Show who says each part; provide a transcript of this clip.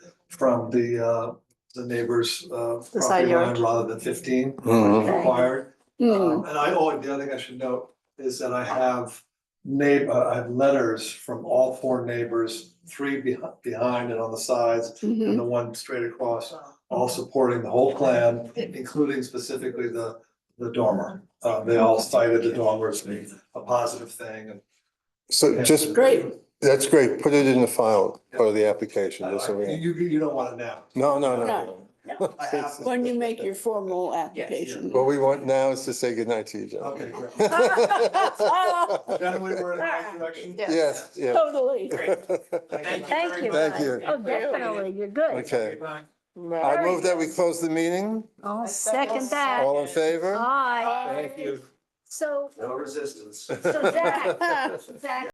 Speaker 1: from the, uh, the neighbor's, uh,
Speaker 2: The side
Speaker 1: property line
Speaker 2: yard.
Speaker 1: rather than fifteen
Speaker 3: Mhm.
Speaker 2: Okay.
Speaker 1: required.
Speaker 2: Hmm,
Speaker 1: Um, And I, oh, the other thing I should note is that I have neighbor, I have letters from all four neighbors, three behind, behind and on the sides,
Speaker 2: mhm.
Speaker 1: and the one straight across, all supporting the whole plan, including specifically the, the dormer. Uh, they all cited the dormer as being a positive thing and.
Speaker 3: So just,
Speaker 2: Great.
Speaker 3: that's great. Put it in the file, part of the application. that's what we need.
Speaker 1: You, you you don't want it now.
Speaker 3: No, no, no.
Speaker 1: I have to-
Speaker 2: When you make your formal application.
Speaker 3: What we want now is to say goodnight to you,
Speaker 1: Okay,
Speaker 3: John.
Speaker 1: great. Generally, we're in the right direction.
Speaker 3: Yes, yeah.
Speaker 2: Totally.
Speaker 4: Thank you.
Speaker 3: Thank you.
Speaker 4: Oh, definitely, you're good.
Speaker 3: Okay. I move that we close the meeting.
Speaker 4: I'll second that.
Speaker 3: All in favor?
Speaker 4: Aye.
Speaker 3: Thank you.
Speaker 4: So,
Speaker 1: No resistance.
Speaker 4: so Zach, Zach,